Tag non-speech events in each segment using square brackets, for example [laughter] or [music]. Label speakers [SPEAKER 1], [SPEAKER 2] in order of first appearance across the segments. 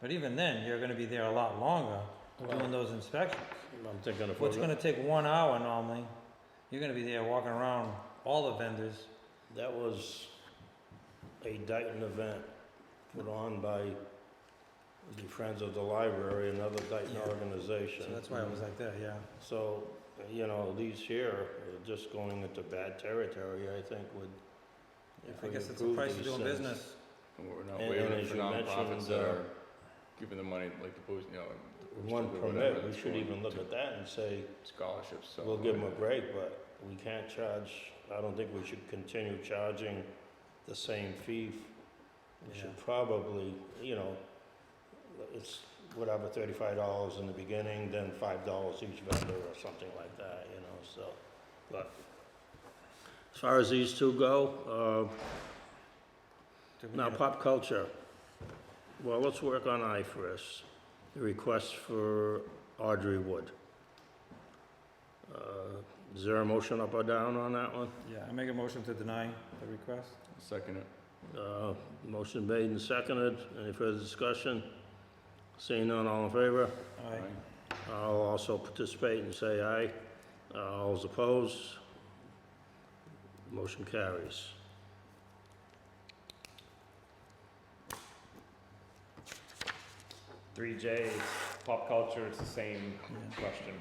[SPEAKER 1] But even then, you're gonna be there a lot longer doing those inspections.
[SPEAKER 2] I'm thinking if
[SPEAKER 1] What's
[SPEAKER 2] we're,
[SPEAKER 1] gonna
[SPEAKER 2] gonna-
[SPEAKER 1] take one hour normally, you're gonna be there walking around all the vendors.
[SPEAKER 2] that was a Dayton event put on by the Friends of the Library, another Dayton
[SPEAKER 1] Yeah.
[SPEAKER 2] organization.
[SPEAKER 1] So that's why it was like that, yeah.
[SPEAKER 2] So, you know, these here are just going into bad territory, I think, with. if
[SPEAKER 1] I
[SPEAKER 2] we
[SPEAKER 1] guess it's the
[SPEAKER 2] improve
[SPEAKER 1] price of
[SPEAKER 2] these
[SPEAKER 1] doing
[SPEAKER 2] things.
[SPEAKER 1] business.
[SPEAKER 3] And We're not
[SPEAKER 2] And-
[SPEAKER 3] waiving
[SPEAKER 2] and
[SPEAKER 3] it
[SPEAKER 2] as
[SPEAKER 3] for
[SPEAKER 2] you
[SPEAKER 3] nonprofits
[SPEAKER 2] mentioned,
[SPEAKER 3] that
[SPEAKER 2] uh,
[SPEAKER 3] are giving the money, like the post, you know. the Post
[SPEAKER 2] One
[SPEAKER 3] Oak or whatever
[SPEAKER 2] permit, we
[SPEAKER 3] that's
[SPEAKER 2] should
[SPEAKER 3] going
[SPEAKER 2] even look
[SPEAKER 3] to
[SPEAKER 2] at that and say,
[SPEAKER 3] Scholarships, so.
[SPEAKER 2] we'll give them a break, but we can't charge, I don't think we should continue charging the same fee. We
[SPEAKER 1] Yeah.
[SPEAKER 2] should probably, you know, it's whatever, thirty-five dollars in the beginning, then five dollars each vendor or something like that, you know, so, but. As far as these two go, uh,
[SPEAKER 1] Did we
[SPEAKER 2] now,
[SPEAKER 1] get-
[SPEAKER 2] pop culture. Well, let's work on I first. The request for Audrey Wood. Uh, Is there a motion up or down on that one?
[SPEAKER 1] Yeah, I make a motion to deny the request.
[SPEAKER 3] Second it.
[SPEAKER 2] Uh, Motion made and seconded. Any further discussion? Seeing none, all in favor?
[SPEAKER 1] Aye.
[SPEAKER 3] right?
[SPEAKER 2] I'll also participate and say aye. All those opposed? Motion carries.
[SPEAKER 4] Three J is pop culture, it's the same
[SPEAKER 1] Yeah.
[SPEAKER 4] question.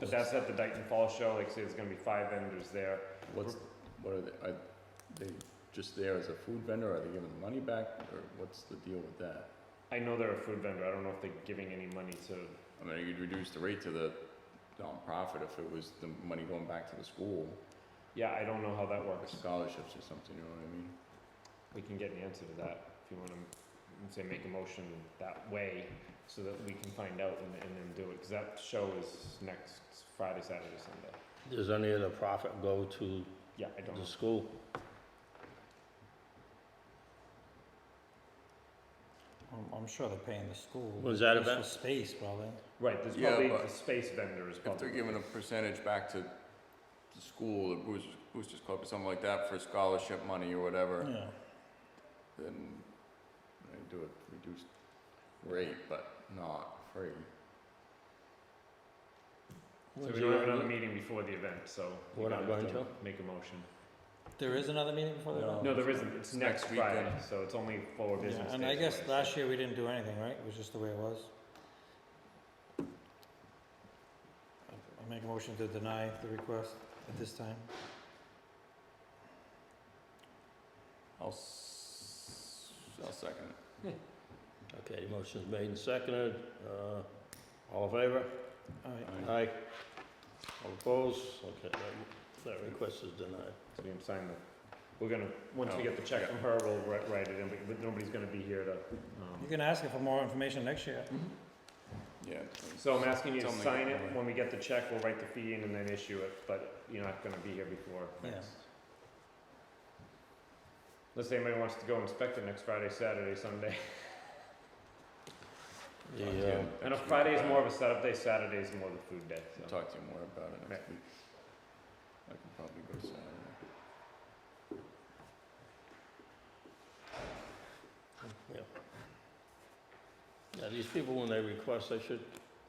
[SPEAKER 4] But that's at the Dayton Fall Show, like I say, there's gonna be five vendors there.
[SPEAKER 3] What's, what are they, are they just there as a food vendor, are they giving the money back, or what's the deal with that?
[SPEAKER 4] I know they're a food vendor, I don't know if they're giving any money to,
[SPEAKER 3] I mean, you'd reduce the rate to the nonprofit if it was the money going back to the school,
[SPEAKER 4] yeah, I don't know how that
[SPEAKER 3] like
[SPEAKER 4] works.
[SPEAKER 3] scholarships or something, you know what I mean?
[SPEAKER 4] We can get an answer to that if you wanna, let's say, make a motion that way so that we can find out and, and then do it, cause that show is next Friday, Saturday, Sunday.
[SPEAKER 2] Does any of the profit go to
[SPEAKER 4] Yeah, I don't know.
[SPEAKER 2] the school?
[SPEAKER 1] I'm, I'm sure they're paying the school.
[SPEAKER 2] Was
[SPEAKER 1] At
[SPEAKER 2] that
[SPEAKER 1] least
[SPEAKER 2] event?
[SPEAKER 1] for Space, probably.
[SPEAKER 4] Right, there's
[SPEAKER 3] Yeah,
[SPEAKER 4] probably
[SPEAKER 3] but
[SPEAKER 4] the space vendors
[SPEAKER 3] If they're
[SPEAKER 4] probably.
[SPEAKER 3] giving a percentage back to the school, the Boosters, Boosters Club or something like that for scholarship money or whatever,
[SPEAKER 1] Yeah.
[SPEAKER 3] then they do it reduced rate, but not free.
[SPEAKER 4] So we don't have another meeting before the event, so. we
[SPEAKER 2] We're not
[SPEAKER 4] gotta have
[SPEAKER 2] going
[SPEAKER 4] Make a motion.
[SPEAKER 1] There is another meeting before the
[SPEAKER 2] No.
[SPEAKER 1] event?
[SPEAKER 4] No, there isn't. It's next
[SPEAKER 3] next weekend.
[SPEAKER 4] Friday, so it's only four
[SPEAKER 1] Yeah,
[SPEAKER 4] business days.
[SPEAKER 1] And I guess
[SPEAKER 4] away, so-
[SPEAKER 1] last year we didn't do anything, right? It was just the way it was. I I make a motion to deny the request at this time.
[SPEAKER 3] I'll, s- I'll second it.
[SPEAKER 2] Okay, motion's made and seconded. Uh, All in favor?
[SPEAKER 1] All right.
[SPEAKER 4] Uh,
[SPEAKER 3] Aye.
[SPEAKER 2] Aye. All opposed? Okay, that- that request is denied.
[SPEAKER 4] So we can sign the, we're gonna, once we
[SPEAKER 3] Oh,
[SPEAKER 4] get the check
[SPEAKER 3] yeah.
[SPEAKER 4] from her, we'll write, write it in, but- but nobody's gonna be here to,
[SPEAKER 1] You
[SPEAKER 4] um,
[SPEAKER 1] can ask her for more information next year.
[SPEAKER 3] Yeah.
[SPEAKER 4] so I'm asking you to
[SPEAKER 3] Tell me
[SPEAKER 4] sign
[SPEAKER 3] when.
[SPEAKER 4] it. When we get the check, we'll write the fee in and then issue it, but you're not gonna be here before
[SPEAKER 1] Yeah.
[SPEAKER 4] next. Unless anybody wants to go inspect it next Friday, Saturday, Sunday. [laughs]
[SPEAKER 2] The,
[SPEAKER 3] Talk to you
[SPEAKER 2] uh,
[SPEAKER 3] next
[SPEAKER 4] I know
[SPEAKER 3] week
[SPEAKER 4] Friday is
[SPEAKER 3] about
[SPEAKER 4] more
[SPEAKER 3] it.
[SPEAKER 4] of a setup day, Saturday is more the food day,
[SPEAKER 3] I'll
[SPEAKER 4] so.
[SPEAKER 3] Talk to you more about it next
[SPEAKER 4] Right.
[SPEAKER 3] week. I can probably go Saturday.
[SPEAKER 2] Yeah, these people, when they request, they should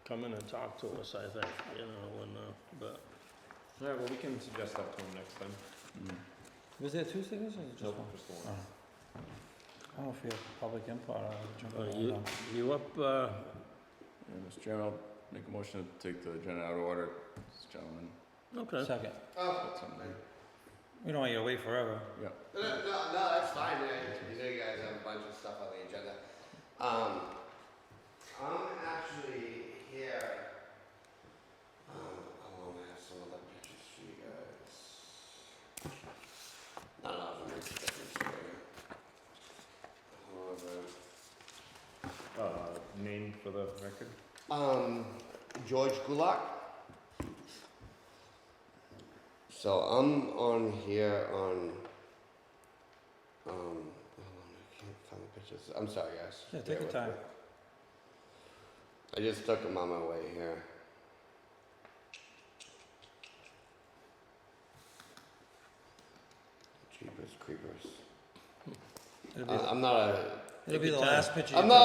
[SPEAKER 2] come in and talk to us, I think, you know, and, uh, but,
[SPEAKER 4] Alright, well, we can suggest that to him next time.
[SPEAKER 3] Mm.
[SPEAKER 1] Was there two signatures or just one?
[SPEAKER 4] Just the
[SPEAKER 1] Oh.
[SPEAKER 4] one.
[SPEAKER 1] I don't know if you have public input or
[SPEAKER 2] uh,
[SPEAKER 1] jumping
[SPEAKER 2] you, you up, uh,
[SPEAKER 3] Yeah, Mr. Chairman, I'll make a motion to take the agenda out of order. This gentleman,
[SPEAKER 1] on.
[SPEAKER 2] okay.
[SPEAKER 1] Second.
[SPEAKER 3] that's something.
[SPEAKER 1] We don't want you to wait forever.
[SPEAKER 3] Yeah.
[SPEAKER 5] No, no, no, that's fine. I, you know, you guys have a bunch of stuff on the agenda. Um, I'm actually here. Um, oh, I have some other pictures for you guys. Not a lot of them make a difference. but-
[SPEAKER 4] Uh, name for the record?
[SPEAKER 5] However, um, George Gulak. So I'm on here on. Um, hold on, I can't find the pictures. I'm sorry, guys.
[SPEAKER 1] Yeah, take
[SPEAKER 5] Bear
[SPEAKER 1] your
[SPEAKER 5] with
[SPEAKER 1] time.
[SPEAKER 5] me. I just took them on my way here. Jeepers creepers.
[SPEAKER 1] It'll
[SPEAKER 5] I,
[SPEAKER 1] be,
[SPEAKER 5] I'm not a.
[SPEAKER 1] it'll be
[SPEAKER 2] your
[SPEAKER 1] the
[SPEAKER 2] time.
[SPEAKER 5] Uh,
[SPEAKER 1] last picture you
[SPEAKER 5] I'm not